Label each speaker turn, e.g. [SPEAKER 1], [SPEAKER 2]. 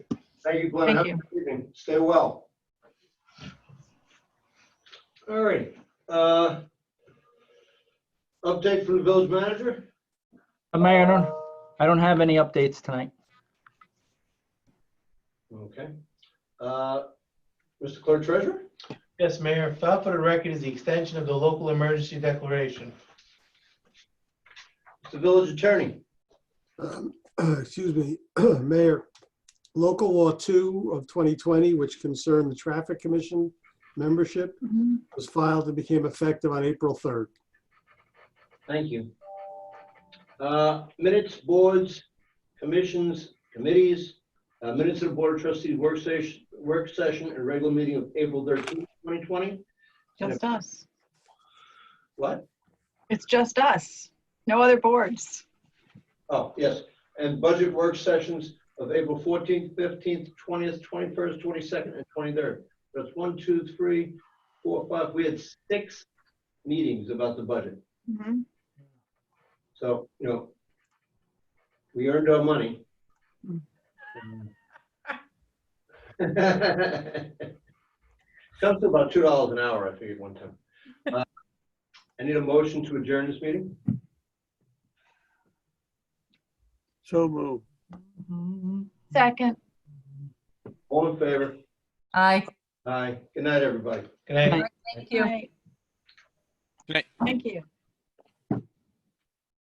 [SPEAKER 1] Thank you, Glenn. Have a
[SPEAKER 2] Thank
[SPEAKER 1] good evening. Stay well. All right. uh, Update from the village manager?
[SPEAKER 3] Uh, Mayor, I don't, I don't have any updates tonight.
[SPEAKER 1] Okay. Uh, Mr. Clerk Treasurer?
[SPEAKER 4] Yes, Mayor, filed for the record is the extension of the local emergency declaration.
[SPEAKER 1] The village attorney?
[SPEAKER 5] Um, Excuse me, Mayor, Local Law 2 of 2020, which concerned the Traffic Commission membership, was filed and became effective on April 3rd.
[SPEAKER 1] Thank you. Uh, Minutes, boards, commissions, committees, uh, minutes of the Board of Trustees work session, work session and regular meeting of April 13th, 2020.
[SPEAKER 2] Just us.
[SPEAKER 1] What?
[SPEAKER 2] It's just us. No other boards.
[SPEAKER 1] Oh, yes. And budget work sessions of April 14th, 15th, 20th, 21st, 22nd, and 23rd. That's one, two, three, four, five. We had six meetings about the budget.
[SPEAKER 2] Mhm.
[SPEAKER 1] So, you know, we earned our money.
[SPEAKER 2] Hmm.
[SPEAKER 1] Comes to about two dollars an hour, I figured one time. Uh, I need a motion to adjourn this meeting.
[SPEAKER 5] So moved.
[SPEAKER 2] Second.
[SPEAKER 1] All in favor?
[SPEAKER 6] Aye.
[SPEAKER 1] Aye. Good night, everybody.
[SPEAKER 4] Can I?
[SPEAKER 3] Aye.
[SPEAKER 6] Thank you.
[SPEAKER 2] Right.
[SPEAKER 7] Good night.
[SPEAKER 2] Thank you.